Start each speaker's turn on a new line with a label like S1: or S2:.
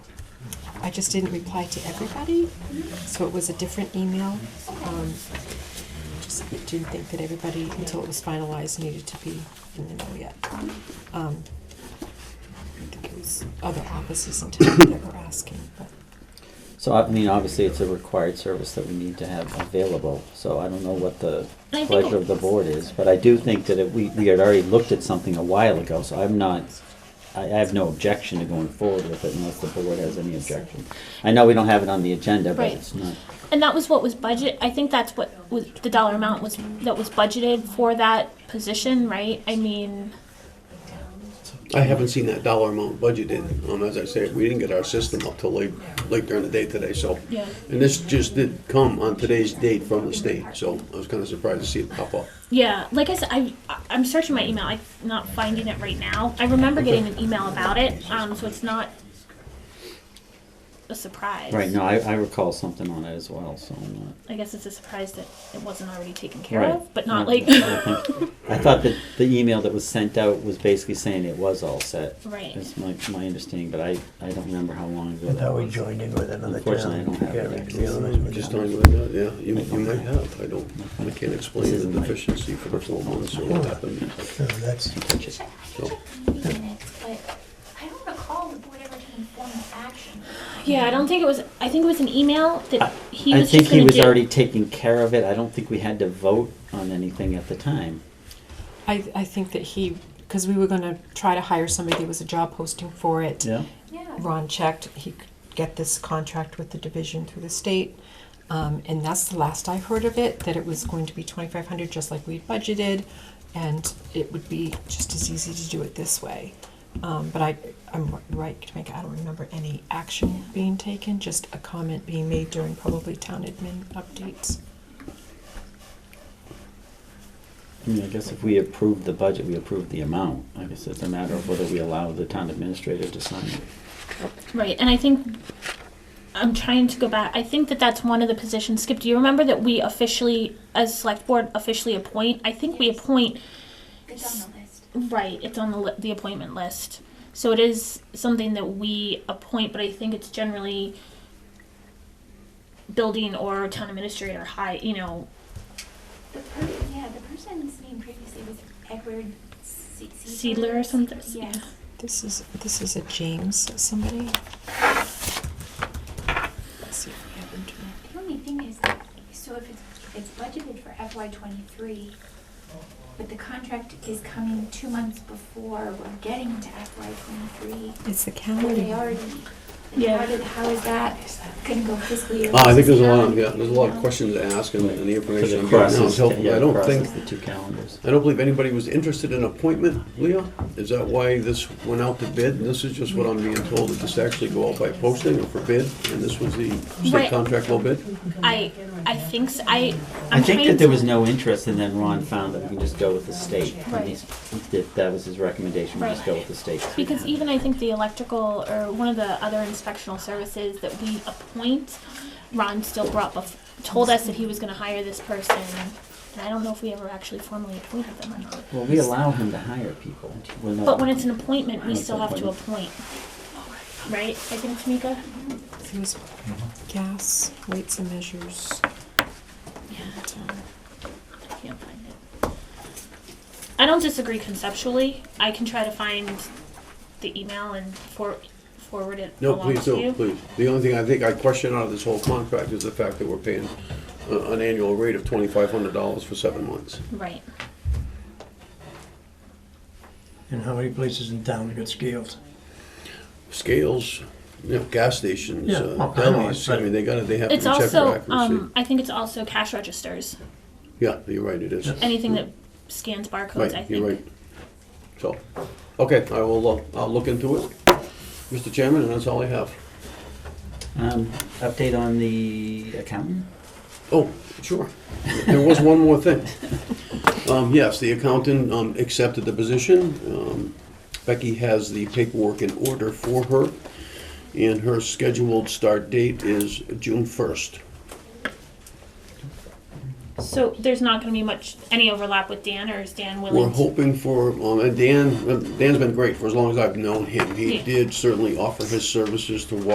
S1: I just didn't reply to everybody, so it was a different email. Um, just didn't think that everybody, until it was finalized, needed to be in the know yet. Um, I think it was other offices in town that were asking, but
S2: So I mean, obviously, it's a required service that we need to have available, so I don't know what the
S3: I think
S2: pleasure
S3: it-
S2: of the board is, but I do think that it, we, we had already looked at something a while ago, so I'm not, I, I have no objection to going forward with it unless the board has any objection. I know we don't have it on the agenda, but
S3: Right.
S2: it's not,
S3: And that was what was budget, I think that's what was, the dollar amount was, that was budgeted for that position, right? I mean,
S4: I haven't seen that dollar amount budgeted. Um, as I said, we didn't get our system up till late, late during the day today, so.
S3: Yeah.
S4: And this just did come on today's date from the state, so I was kinda surprised to see it pop up.
S3: yeah, like I said, I, I'm searching my email, I'm not finding it right now. I remember getting an email about it, um, so it's not a surprise.
S2: right, no, I, I recall something on it as well, so I'm not.
S3: I guess it's a surprise that it wasn't already taken care
S2: Right.
S3: of, but not
S2: Yeah,
S3: like,
S2: I think- I thought that the email that was sent out was basically saying it was all set.
S3: Right.
S2: That's my, my understanding, but I, I don't remember how long ago
S5: I
S2: that
S5: thought we
S2: was.
S5: joined in with another town.
S2: Unfortunately, I don't have
S5: Can't
S2: it.
S5: make the other one.
S4: Just on with that, yeah, you, you might have, I don't, I can't
S2: This
S4: explain
S2: isn't
S4: the
S2: like-
S4: deficiency for the full months or what happened.
S5: No, that's,
S2: Just-
S4: So,
S6: but I don't recall the board ever taking formal action.
S3: yeah, I don't think it was, I think it was an email that he
S2: I
S3: was just
S2: think he
S3: gonna
S2: was
S3: do.
S2: already taking care of it, I don't think we had to vote on anything at the time.
S1: I, I think that he, because we were gonna try to hire somebody, there was a job posting for it.
S6: Yeah.
S1: Ron checked, he could get this contract with the division through the state. Um, and that's the last I heard of it, that it was going to be twenty-five hundred, just like we budgeted, and it would be just as easy to do it this way. Um, but I, I'm right, Tamika, I don't remember any action being taken, just a comment being made during probably town admin updates.
S2: I mean, I guess if we approved the budget, we approved the amount. I guess it's a matter of whether we allow the town administrator to sign it.
S3: Right, and I think I'm trying to go back. I think that that's one of the positions. Skip, do you remember that we officially, as select board, officially appoint? I think we appoint.
S6: It's on the list.
S3: Right, it's on the li- the appointment list, so it is something that we appoint. But I think it's generally building or town administrator high. You know,
S6: The per, yeah, the person's name previously was Edward Se-
S3: Seidler or something.
S6: Yeah.
S1: This is, this is a James somebody. Let's see if we have him to-
S6: The only thing is, so if it's, if it's budgeted for FY twenty-three, but the contract is coming two months before we're getting to FY twenty-three,
S1: It's the
S6: were they
S1: calendar.
S6: already?
S3: Yeah.
S6: How did, how is that gonna go fiscal year?
S4: Uh, I think there's a lot, yeah, there's a lot of questions to ask and and the
S2: Because
S4: information
S2: it
S4: I'm getting now is
S2: crosses-
S4: helpful.
S2: yeah,
S4: I
S2: it
S4: don't
S2: crosses
S4: think,
S2: The two calendars.
S4: I don't believe anybody was interested in appointment, Leah? Is that why this went out to bid? And this is just what I'm being told, that this actually go out by posting or for bid? And this was the
S3: Right.
S4: state contract low bid?
S3: I I think so. I
S2: I
S3: I'm
S2: think
S3: trying
S2: that there
S3: to-
S2: was no interest, and then Ron found that we can just go with the state. And
S3: Right.
S2: he's- That, that was his recommendation, we just
S3: Right.
S2: go with the state.
S3: Because even I think the electrical or one of the other inspectional services that we appoint, Ron still brought bef- told us that he was going to hire this person, and I don't know if we ever actually formally appointed them or not.
S2: Well, we allow him to hire people. We're not-
S3: But when it's an appointment, we still have to appoint,
S2: Appointment.
S6: Oh,
S3: right? I think Tamika.
S1: It was gas, weights and measures. and, um,
S3: I can't find it. I don't disagree conceptually. I can try to find the email and for- forward it
S4: No,
S3: along
S4: please
S3: to you.
S4: don't, please. The only thing I think I question out of this whole contract is the fact that we're paying uh, an annual rate of twenty-five hundred dollars for seven months.
S3: Right.
S5: and how many places in town that got scaled?
S4: Scales, you know, gas stations,
S5: Yeah,
S4: uh,
S5: well, I know,
S4: delis, I
S5: but-
S4: mean, they gotta, they have to
S3: It's
S4: check for
S3: also,
S4: accuracy.
S3: um, I think it's also cash registers.
S4: Yeah, you're right, it is.
S3: Anything that scans barcodes, I
S4: Right, you're
S3: think.
S4: right. So, okay, I will, uh, I'll look into it, Mr. Chairman, and that's all I have.
S2: Um, update on the accountant?
S4: Oh, sure. There was one more thing. Um, yes, the accountant, um, accepted the position. Um, Becky has the paperwork in order for her, and her scheduled start date is June first.
S3: So there's not gonna be much, any overlap with Dan, or is Dan
S4: We're
S3: willing? to-
S4: hoping for, um, and Dan, Dan's been great for as long as I've known him. He
S3: Yeah.
S4: did certainly offer his services to